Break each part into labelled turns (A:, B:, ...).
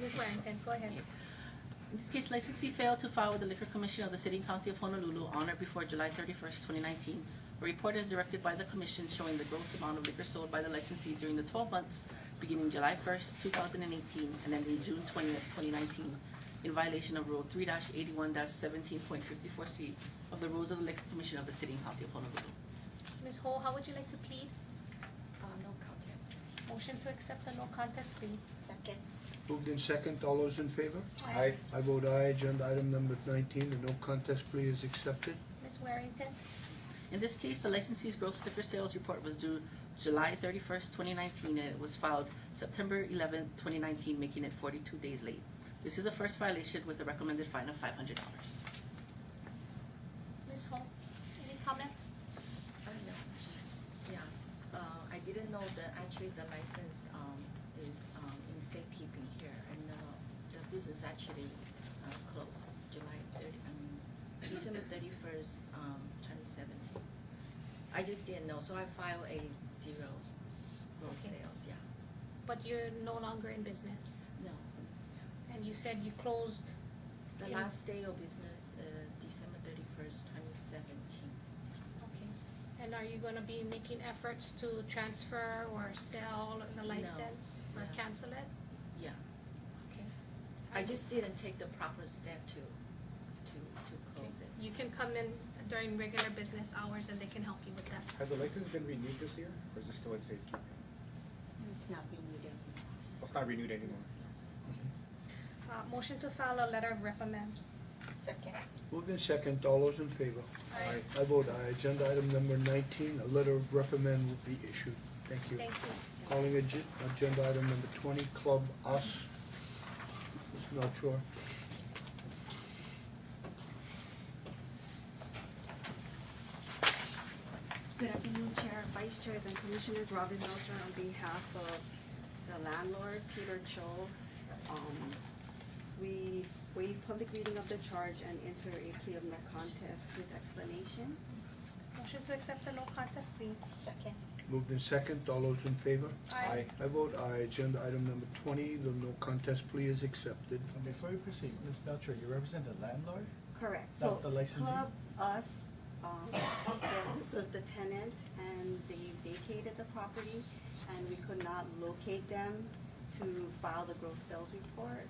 A: Ms. Warrington, go ahead.
B: In this case, licensee failed to file with the Liquor Commission of the City and County of Honolulu on or before July 31st, 2019. A report is directed by the commission showing the gross amount of liquor sold by the licensee during the 12 months beginning July 1st, 2018, and ending June 20th, 2019, in violation of Rule 3-81-17.54C of the Rules of the Liquor Commission of the City and County of Honolulu.
A: Ms. Ho, how would you like to plead?
C: Uh, no contest.
A: Motion to accept the no contest plea.
C: Second.
D: Moved in second, all those in favor?
A: Aye.
D: I vote aye, agenda item number nineteen, the no contest plea is accepted.
A: Ms. Warrington,
B: In this case, the licensee's gross liquor sales report was due July thirty-first, twenty nineteen, and it was filed September eleventh, twenty nineteen, making it forty-two days late. This is a first violation with a recommended fine of five hundred dollars.
A: Ms. Ho, any comment?
C: Oh, no, jeez, yeah. Uh, I didn't know that actually the license, um, is, um, in safekeeping here and, uh, the business actually, uh, closed July thirty, I mean, December thirty-first, um, twenty seventeen. I just didn't know, so I filed a zero gross
A: Okay.
C: sales, yeah.
A: But you're no longer in business,
C: No,
A: and you said you closed,
C: the
A: Yeah.
C: last day of business, uh, December thirty-first, twenty seventeen.
A: okay. And are you gonna be making efforts to transfer or sell the
C: No.
A: license or
C: No.
A: cancel it?
C: Yeah,
A: Okay.
C: I just didn't take the proper step to, to, to
A: Okay.
C: close it.
A: You can come in during regular business hours and they can help you with that.
E: Has the license been renewed this year, or is it still in safekeeping?
F: It's not being renewed anymore.
E: Well, it's not renewed anymore.
A: Uh, motion to file a letter of recommend.
C: Second.
D: Moved in second, all those in favor?
A: Aye.
D: I vote aye, agenda item number nineteen, a letter of recommend will be issued. Thank you.
A: Thank you.
D: Calling agen- agenda item number twenty, Club Us. Ms. Melchor.
F: Good afternoon, Chair, Vice Chairs, and Commissioners. Robin Melcher on behalf of the landlord, Peter Cho. Um, We waive public reading of the charge and enter a plea of no contest with explanation.
A: Motion to accept the no contest plea.
C: Second.
D: Moved in second, all those in favor?
A: Aye.
D: I vote aye, agenda item number twenty, the no contest plea is accepted.
G: Before we proceed, Ms. Belcher, you represent the landlord?
F: Correct. So
G: Not the licensee?
F: Club Us, um, that was the tenant, and they vacated the property, and we could not locate them to file the gross sales report.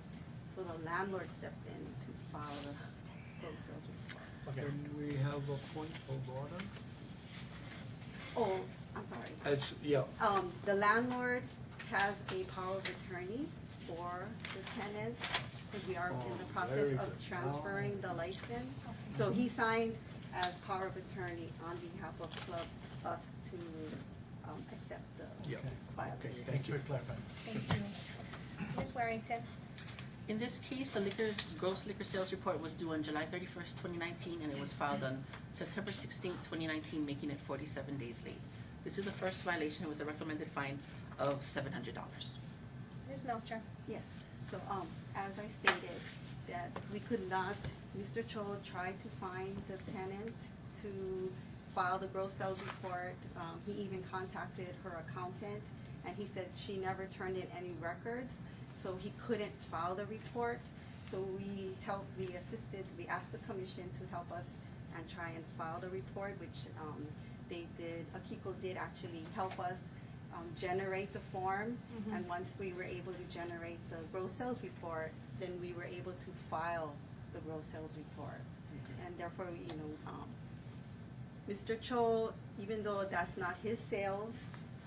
F: So the landlord stepped in to file the gross sales report.
G: Okay.
D: And we have a point of order?
F: Oh, I'm sorry.
D: As, yeah,
F: Um, the landlord has a power of attorney for the tenant, because we are in
D: Oh,
F: the
D: very
F: process of
D: good. Oh.
F: transferring the license.
A: Okay.
F: So he signed as power of attorney on behalf of Club Us to, um, accept the
D: yeah,
G: Okay.
D: okay,
F: violation.
D: thank
G: Thanks
D: you.
G: for clarifying.
A: Thank you. Ms. Warrington,
B: In this case, the liquor's gross liquor sales report was due on July thirty-first, twenty nineteen, and it was filed on September sixteenth, twenty nineteen, making it forty-seven days late. This is a first violation with a recommended fine of seven hundred dollars.
A: Ms. Melcher.
F: Yes, so, um, as I stated, that we could not, Mr. Cho tried to find the tenant to file the gross sales report. Um, he even contacted her accountant, and he said she never turned in any records, so he couldn't file the report. So we helped, we assisted, we asked the commission to help us and try and file the report, which, um, they did, Akiko did actually help us, um, generate the form.
A: Mhm.
F: And once we were able to generate the gross sales report, then we were able to file the gross sales report.
D: Okay.
F: And therefore, you know, um, Mr. Cho, even though that's not his sales,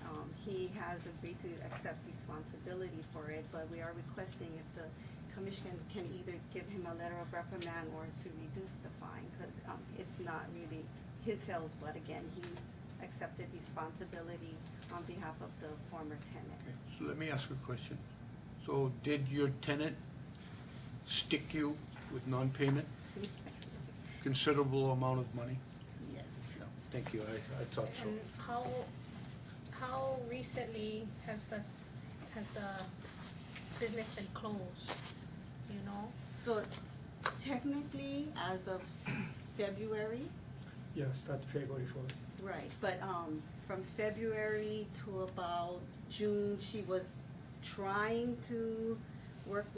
F: um, he has agreed to accept responsibility for it, but we are requesting if the commission can either give him a letter of reprimand or to reduce the fine, because, um, it's not really his sales, but again, he's accepted responsibility on behalf of the former tenant.
D: Okay, So let me ask a question. So did your tenant stick you with non-payment, considerable amount of money?
F: Yes.
D: Yeah, Thank you, I, I thought so.
A: And how, how recently has the, has the business been closed, you know?
F: So technically, as of February,
H: Yeah, start February first.
F: right, but um, from February to about June, she was trying to work